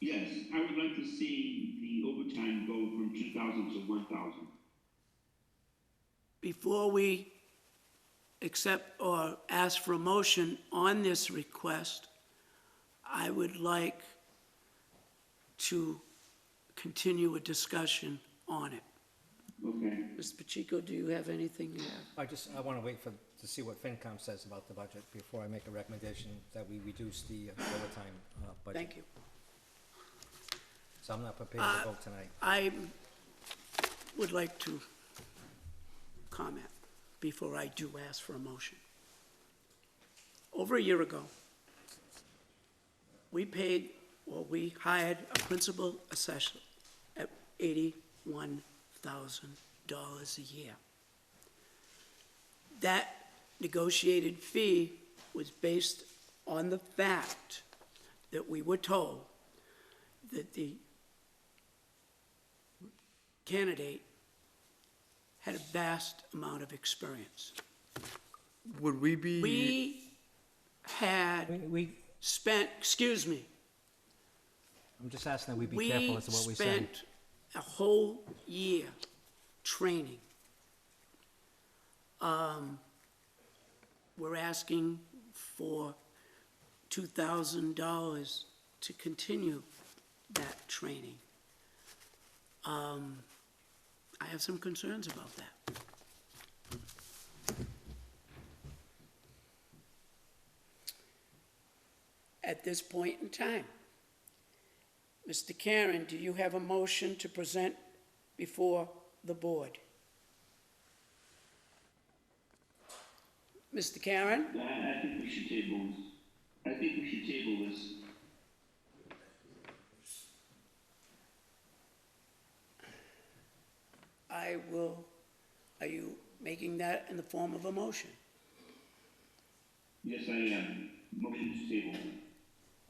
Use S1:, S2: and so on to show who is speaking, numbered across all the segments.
S1: Yes, I would like to see the overtime go from two thousand to one thousand.
S2: Before we accept or ask for a motion on this request, I would like to continue a discussion on it.
S1: Okay,
S2: Mr. Pacheco, do you have anything you have?
S3: I just, I want to wait for, to see what FinCom says about the budget before I make a recommendation that we reduce the uh, overtime uh, budget.
S2: Thank you.
S3: So I'm not prepared
S4: Uh,
S3: to vote tonight.
S2: I would like to comment before I do ask for a motion. Over a year ago, we paid, or we hired a principal assessor at eighty-one thousand dollars a year. That negotiated fee was based on the fact that we were told that the candidate had a vast amount of experience.
S5: Would we be?
S2: We
S3: We,
S2: had
S3: we-
S2: spent, excuse me,
S3: I'm just asking that we be careful
S2: we
S3: as to what we say.
S2: spent a whole year training. Um, We're asking for two thousand dollars to continue that training. Um, I have some concerns about that. At this point in time. Mr. Karen, do you have a motion to present before the board? Mr. Karen?
S1: I, I think we should table this. I think we should table this.
S2: I will, are you making that in the form of a motion?
S1: Yes, I am. Motion to table.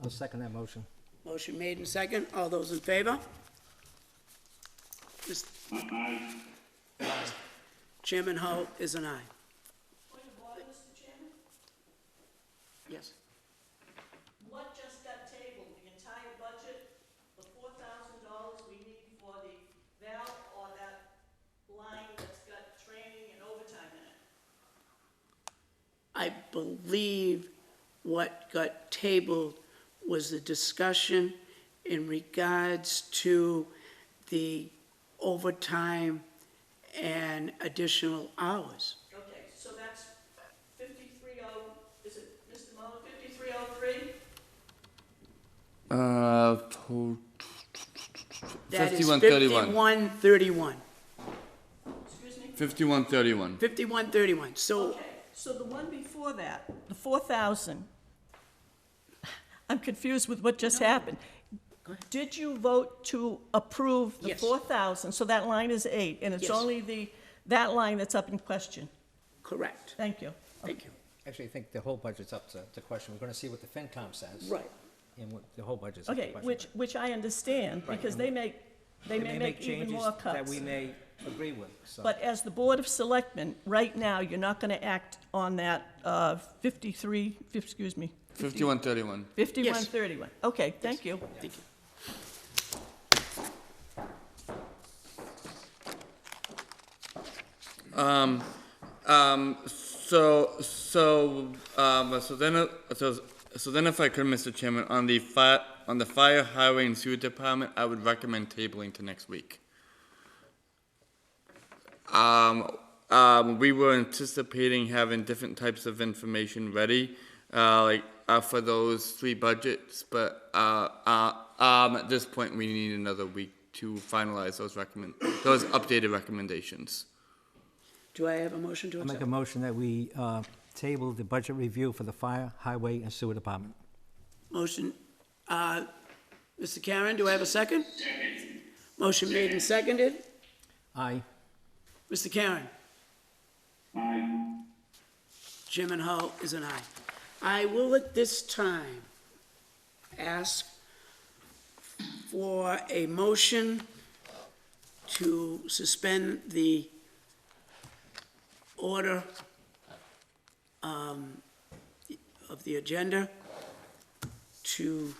S3: I'll second that motion.
S2: Motion made and second, all those in favor? Mr.
S1: Aye, Aye.
S2: Chairman Hull is an aye.
S4: Point of order, Mr. Chairman?
S2: Yes.
S4: What just got tabled, the entire budget, the four thousand dollars we need for the valve or that line that's got training and overtime in it?
S2: I believe what got tabled was the discussion in regards to the overtime and additional hours.
S4: Okay, so that's fifty-three oh, is it, Mr. Mullin, fifty-three oh three?
S5: Uh, to-
S2: That is
S5: 5131.
S2: 5131.
S4: Excuse me?
S5: 5131.
S2: 5131. So
S4: Okay, so the one before that, the four thousand, I'm confused with what just happened. Did you vote to approve the
S2: Yes.
S4: four thousand, so that line is eight, and it's
S2: Yes.
S4: only the, that line that's up in question?
S2: correct.
S4: Thank you.
S2: Thank you.
S3: Actually, I think the whole budget's up to, to question. We're going to see what the FinCom says.
S2: Right.
S3: And what, the whole budget's up to
S4: Okay,
S3: question.
S4: which, which I understand, because they make, they may make even more
S3: changes that
S4: cuts.
S3: we may agree with, so.
S4: But as the Board of Selectmen, right now, you're not gonna act on that uh, 53, fif- excuse me,
S5: 5131.
S4: 5131. Okay, thank you.
S2: Thank you.
S5: Um, um, so, so, um, so then, uh, so, so then if I could, Mr. Chairman, on the fi- on the fire, highway, and sewer department, I would recommend tabling to next week. Um, um, we were anticipating having different types of information ready, uh, like, uh, for those three budgets, but, uh, uh, um, at this point, we need another week to finalize those recommend, those updated recommendations.
S2: Do I have a motion to
S3: I make
S2: accept?
S3: a motion that we uh, table the budget review for the fire, highway, and sewer department.
S2: Motion, uh, Mr. Karen, do I have a second? Second. Motion made and seconded.
S3: Aye.
S2: Mr. Karen?
S1: Aye.
S2: Jim and Hull is an aye. I will at this time ask for a motion to suspend the order um, of the agenda to